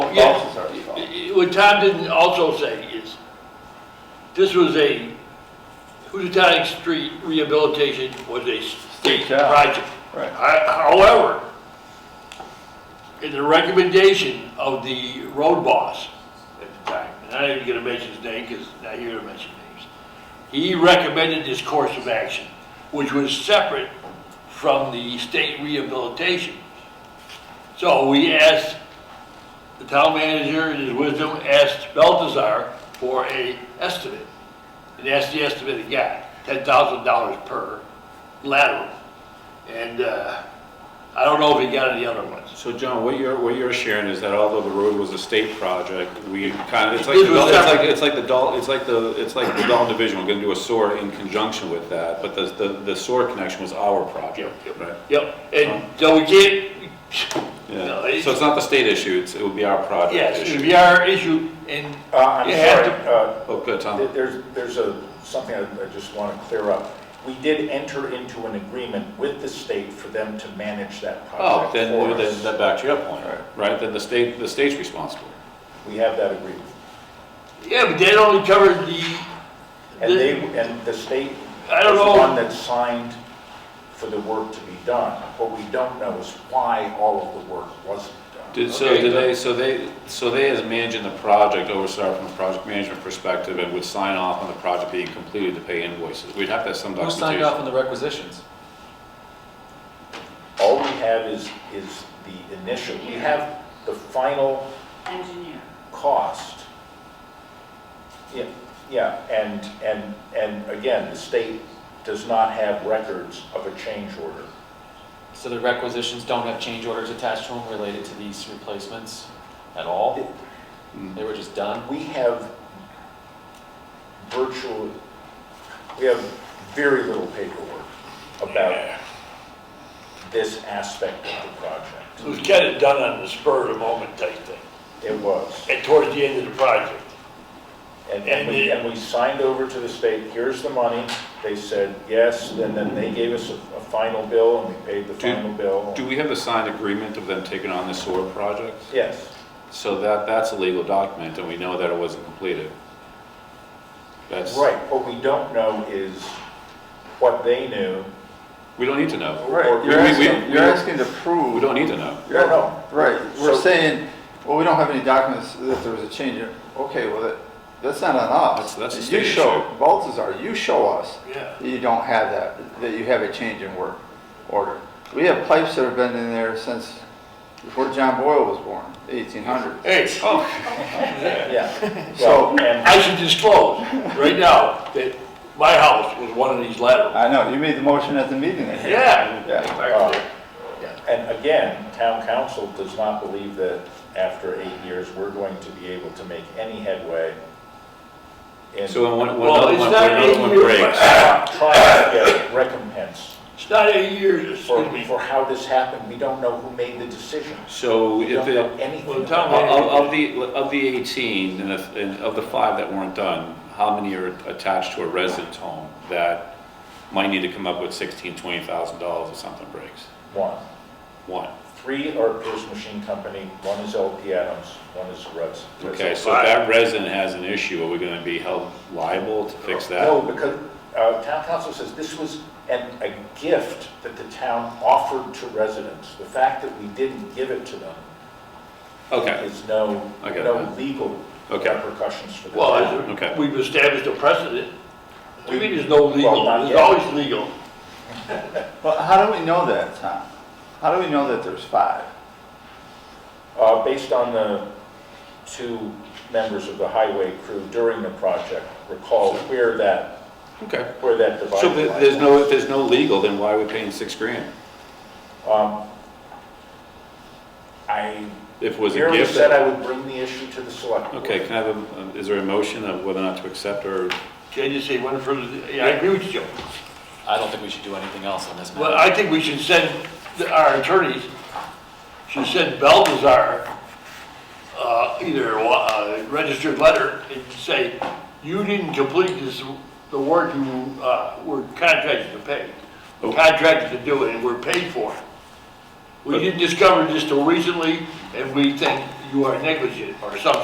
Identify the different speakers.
Speaker 1: Tom Dawson's our fault.
Speaker 2: What Tom didn't also say is, this was a, Housatonic Street rehabilitation was a state
Speaker 1: State job.
Speaker 2: project.
Speaker 1: Right.
Speaker 2: I- However, in the recommendation of the road boss at the time, and I'm not even gonna mention his name, because not here to mention names, he recommended this course of action, which was separate from the state rehabilitation. So we asked, the town manager in his wisdom asked Balthazar for a estimate. And that's the estimate he got, ten thousand dollars per lateral. And, uh, I don't know if he got any other ones.
Speaker 3: So John, what you're, what you're sharing is that although the road was a state project, we kind of, it's like,
Speaker 2: It was
Speaker 3: the- it's like,
Speaker 2: separate.
Speaker 3: it's like the Dalton, it's like the, it's like the Dalton Division, we're gonna do a SOAR in conjunction with that, but the, the, the SOAR connection was our project, right?
Speaker 2: Yep, and so we can't, No,
Speaker 3: Yeah,
Speaker 2: it's-
Speaker 3: so it's not the state issue, it's, it would be our project
Speaker 2: yes, it
Speaker 3: issue.
Speaker 2: would be our issue, and
Speaker 4: Uh, I'm
Speaker 2: You have
Speaker 4: sorry, uh,
Speaker 3: Oh, good, Tom.
Speaker 4: th- there's, there's a, something I I just want to clear up. We did enter into an agreement with the state for them to manage that
Speaker 3: Oh,
Speaker 4: project
Speaker 3: then,
Speaker 4: for
Speaker 3: then
Speaker 4: us.
Speaker 3: that back to your point, right? Then the state, the state's responsible.
Speaker 4: We have that agreement.
Speaker 2: yeah, but that only covered the,
Speaker 4: And
Speaker 2: The-
Speaker 4: they, and the state
Speaker 2: I don't
Speaker 4: is
Speaker 2: know.
Speaker 4: the one that signed for the work to be done. What we don't know is why all of the work wasn't done.
Speaker 3: Did, so
Speaker 2: Okay,
Speaker 3: did
Speaker 2: good.
Speaker 3: they, so they, so they as managing the project, oversaw from a project management perspective and would sign off on the project being completed to pay invoices? We'd have to have some
Speaker 5: Who
Speaker 3: documentation.
Speaker 5: signed off on the requisitions?
Speaker 4: All we have is, is the initial, we have the final
Speaker 6: engineer.
Speaker 4: cost. Yeah, yeah, and, and, and again, the state does not have records of a change order.
Speaker 5: So the requisitions don't have change orders attached to them related to these replacements at all? They were just done?
Speaker 4: We have virtual, we have very little paperwork about this aspect of the project.
Speaker 2: it was kind of done on the spur of the moment type thing,
Speaker 4: It was.
Speaker 2: and towards the end of the project.
Speaker 4: And, and we, and we signed over to the state, here's the money. They said, yes, and then they gave us a, a final bill and we paid the
Speaker 3: Do-
Speaker 4: final bill.
Speaker 3: Do we have a signed agreement of them taking on the sewer project?
Speaker 4: Yes.
Speaker 3: So that, that's a legal document, and we know that it wasn't completed. That's,
Speaker 4: Right, what we don't know is what they knew.
Speaker 3: we don't need to know.
Speaker 4: Or-
Speaker 1: Right, you're
Speaker 3: we-
Speaker 1: asking,
Speaker 3: we-
Speaker 1: you're asking to
Speaker 3: We
Speaker 1: prove.
Speaker 3: don't need to know.
Speaker 4: No, no.
Speaker 1: Right, we're
Speaker 4: So-
Speaker 1: saying, well, we don't have any documents that there was a change. Okay, well, that, that's not on us.
Speaker 3: That's- that's a
Speaker 1: You
Speaker 3: state
Speaker 1: show,
Speaker 3: issue.
Speaker 1: Baltazar, you show us
Speaker 2: Yeah.
Speaker 1: that you don't have that, that you have a change in work order. We have pipes that have been in there since before John Boyle was born, eighteen hundred.
Speaker 2: Hey,
Speaker 4: Yeah.
Speaker 1: So-
Speaker 4: Well, and,
Speaker 2: I should disclose right now that my house was one of these laterals.
Speaker 1: I know, you made the motion at the meeting. I think.
Speaker 2: Yeah.
Speaker 1: Yeah.
Speaker 4: uh, and again, town council does not believe that after eight years, we're going to be able to make any headway in
Speaker 3: So when, one- when
Speaker 2: Well,
Speaker 3: another
Speaker 2: it's
Speaker 3: one,
Speaker 2: not
Speaker 3: when another
Speaker 2: in
Speaker 3: one
Speaker 2: your-
Speaker 3: breaks,
Speaker 4: trying to get recompense
Speaker 2: It's not eight years,
Speaker 4: for,
Speaker 2: excuse me.
Speaker 4: for how this happened. We don't know who made the decision.
Speaker 3: so
Speaker 4: We
Speaker 3: if
Speaker 4: don't
Speaker 3: it,
Speaker 4: know anything.
Speaker 2: Well,
Speaker 4: about
Speaker 2: Tom-
Speaker 4: it.
Speaker 3: Of, of- of the, of the 18, and if- and of the five that weren't done, how many are attached to a residence home that might need to come up with 16, 20,000 dollars if something breaks?
Speaker 4: One,
Speaker 3: One.
Speaker 4: three are Pierce Machine Company, one is LP Adams, one is Russ.
Speaker 3: Okay, so if that resident has an issue, are we gonna be held liable to fix
Speaker 4: No,
Speaker 3: that?
Speaker 4: because uh, town council says this was an, a gift that the town offered to residents. The fact that we didn't give it to them
Speaker 3: Okay,
Speaker 4: is no,
Speaker 3: I get
Speaker 4: no
Speaker 3: that.
Speaker 4: legal
Speaker 3: Okay.
Speaker 4: repercussions for the town.
Speaker 2: Well,
Speaker 3: Okay.
Speaker 2: as we've established a precedent. I mean, there's no legal,
Speaker 4: Well, not
Speaker 2: there's
Speaker 4: yet.
Speaker 2: always legal.
Speaker 1: Well, how do we know that, Tom? How do we know that there's five?
Speaker 4: Uh, Based on the two members of the highway crew during the project, recall where that,
Speaker 3: okay.
Speaker 4: where that divided
Speaker 3: So
Speaker 4: line was.
Speaker 3: if there's no, if there's no legal, then why are we paying six grand?
Speaker 4: Um, I
Speaker 3: If it was a
Speaker 4: merely
Speaker 3: gift?
Speaker 4: said I would bring the issue to the select board.
Speaker 3: Okay, can I have, a- is there a motion of whether or not to accept or?
Speaker 2: Can I just say one further, yeah, I agree with you, Joe.
Speaker 5: I don't think we should do anything else on this
Speaker 2: Well,
Speaker 5: matter.
Speaker 2: I think we should send, the- our attorneys should send Balthazar, uh, either a wa- a registered letter and say, you didn't complete this, the work you, uh, were contracted to pay. We're Contracted to do it and we're paid for it. We didn't discover this till recently and we think you are negligent or something.